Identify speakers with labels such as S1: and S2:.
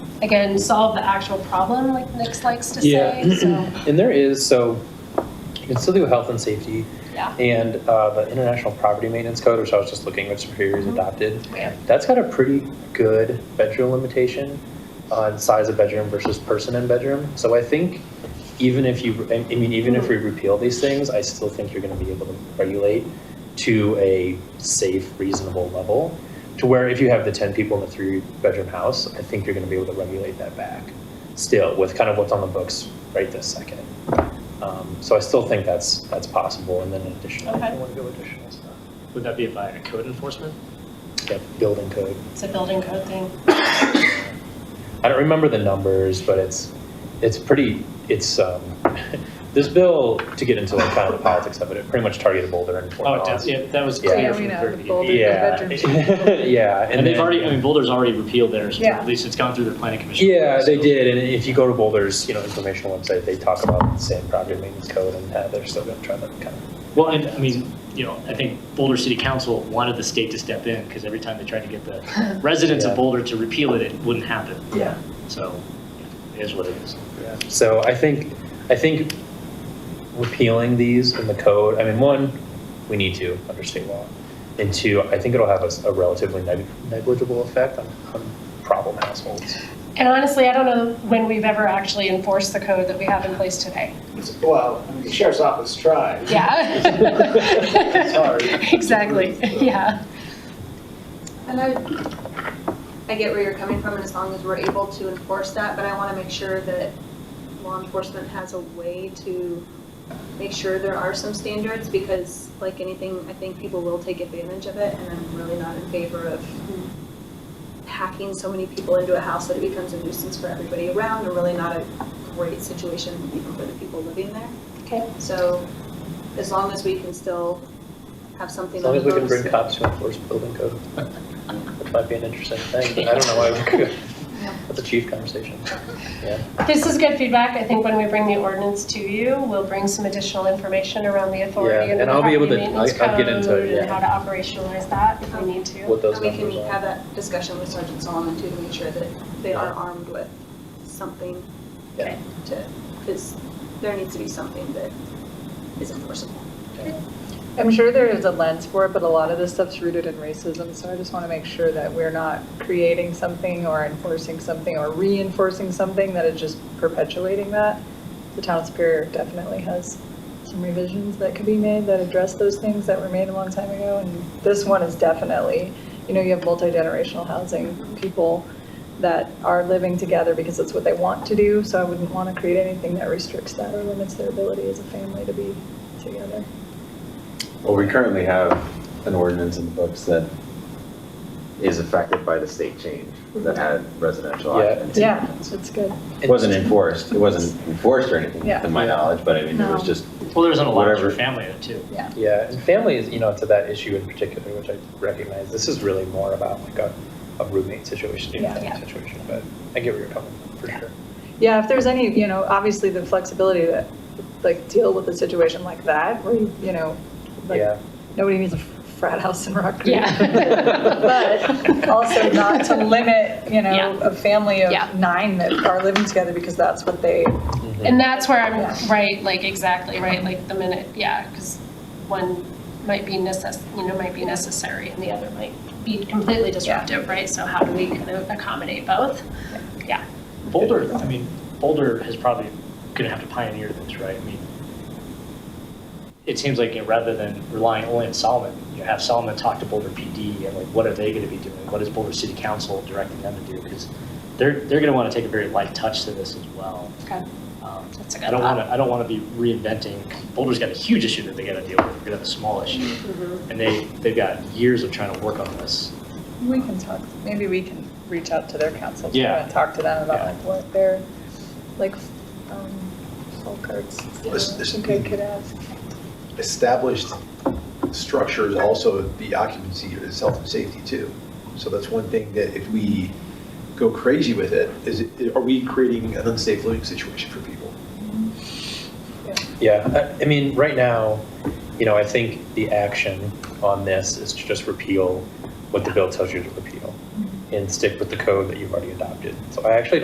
S1: again, solve the actual problem, like Nick's likes to
S2: Yeah.
S1: say, so,
S2: And there is, so you can still do health and safety
S1: yeah.
S2: and uh, the International Property Maintenance Code, which I was just looking, which Superior's
S1: Mm-hmm.
S2: adopted.
S1: Yeah.
S2: That's got a pretty good bedroom limitation on size of bedroom versus person in bedroom. So I think even if you, I I mean, even if we repeal these things, I still think you're going to be able to regulate to a safe, reasonable level. To where if you have the 10 people in a three-bedroom house, I think you're going to be able to regulate that back still with kind of what's on the books right this second. Um, So I still think that's, that's possible, and then additional, I
S1: Okay.
S2: want to go additional stuff.
S3: Would that be by code enforcement?
S2: Yeah, building code.
S1: It's a building code thing.
S2: I don't remember the numbers, but it's, it's pretty, it's, um, this bill, to get into like kind of the politics of it, it pretty much targeted Boulder and Fort
S3: Oh, it
S2: Collins.
S3: does, yeah, that was
S2: Yeah.
S3: clear
S4: Yeah, we
S3: from
S4: know,
S3: thirty.
S4: Boulder.
S2: Yeah. Yeah.
S3: And they've
S2: then-
S3: already, I mean, Boulder's already repealed theirs, or
S4: Yeah.
S3: at least it's gone through the planning commission.
S2: Yeah, they
S3: so-
S2: did, and if you go to Boulder's, you know, informational website, they talk about the same property maintenance code and how they're still gonna try to kind of.
S3: Well, and, I mean, you know, I think Boulder City Council wanted the state to step in, because every time they tried to get the residents
S2: Yeah.
S3: of Boulder to repeal it, it wouldn't happen.
S2: Yeah.
S3: So, it is what it is.
S2: Yeah. So I think, I think repealing these in the code, I mean, one, we need to under state law. And two, I think it'll have a s- a relatively neg- negligible effect on, on problem households.
S1: And honestly, I don't know when we've ever actually enforced the code that we have in place today.
S5: It's- Well, I mean, the sheriff's office tried.
S1: Yeah.
S5: Sorry.
S1: Exactly, yeah.
S6: And I, I get where you're coming from, and as long as we're able to enforce that, but I want to make sure that law enforcement has a way to make sure there are some standards, because like anything, I think people will take advantage of it, and I'm really not in favor of packing so many people into a house that it becomes a nuisance for everybody around, and really not a great situation even for the people living there.
S1: Okay.
S6: So as long as we can still have something.
S2: As long as we can bring
S6: on the
S2: cops
S6: books.
S2: to enforce building code. That might be an interesting thing, but I don't know why we could. That's a chief conversation. Yeah.
S1: This is good feedback. I think when we bring the ordinance to you, we'll bring some additional information around the authority
S2: Yeah,
S1: and the
S2: and I'll
S1: property
S2: be able to-
S1: maintenance
S2: I- I'll get
S1: code
S2: into it,
S1: and
S2: yeah.
S1: how to operationalize that if we need to.
S2: What those
S6: And we can
S2: numbers are.
S6: have that discussion with Sergeant Solomon too, to make sure that they are armed with something
S2: Yeah.
S6: to, because there needs to be something that is enforceable.
S4: I'm sure there is a lens for it, but a lot of this stuff's rooted in racism, so I just want to make sure that we're not creating something or enforcing something or reinforcing something that is just perpetuating that. The town of superior definitely has some revisions that could be made that address those things that were made a long time ago, and this one is definitely, you know, you have multi-generational housing, people that are living together because it's what they want to do, so I wouldn't want to create anything that restricts that or limits their ability as a family to be together.
S7: Well, we currently have an ordinance in the books that is affected by the state change that had residential
S2: Yeah.
S7: occupancy.
S4: Yeah, it's good.
S7: It wasn't enforced, it wasn't enforced or anything,
S4: Yeah.
S7: to my knowledge, but I mean, it was
S4: No.
S7: just,
S3: Well, there's an allowance for
S7: Whatever.
S3: family though, too.
S2: Yeah, and family is, you know, to that issue in particular, which I recognize, this is really more about like a, a roommate situation, a
S4: Yeah.
S2: family
S1: Yeah.
S2: situation, but I get where you're coming from, for sure.
S4: Yeah, if there's any, you know, obviously the flexibility that, like, deal with a situation like that, where, you you know, like,
S2: Yeah,
S4: nobody needs a frat house in Rock Creek.
S1: Yeah.
S4: But also not to limit, you know,
S1: Yeah.
S4: a family of
S1: Yeah.
S4: nine that are living together because that's what they,
S2: Mm-hmm.
S1: And that's where I'm, right, like, exactly, right, like, the minute, yeah, because one might be necess, you know, might be necessary, and the other might be completely disruptive, right? So how do we kind of accommodate both? Yeah.
S3: Boulder, I mean, Boulder is probably going to have to pioneer this, right? I mean, it seems like you know, rather than relying only on Solomon, you have Solomon talk to Boulder PD and like, what are they going to be doing? What is Boulder City Council directing them to do? Because they're, they're going to want to take a very light touch to this as well.
S1: Okay.
S3: Um,
S1: That's a good
S3: I don't
S1: thought.
S3: want to, I don't want to be reinventing, Boulder's got a huge issue that they got to deal with, they're going to have a small issue.
S1: Mm-hmm.
S3: And they, they've got years of trying to work on this.
S4: we can talk, maybe we can reach out to their council. too,
S3: Yeah.
S4: And talk to them about
S3: Yeah.
S4: like what their, like, um, folk arts, you know, I
S8: This- this-
S4: think I could ask.
S8: established structures also the occupancy is health and safety too. So that's one thing that if we go crazy with it, is, it- are we creating an unsafe living situation for people?
S2: yeah. I, I mean, right now, you know, I think the action on this is to just repeal what the bill tells you to repeal and stick with the code that you've already adopted. So I actually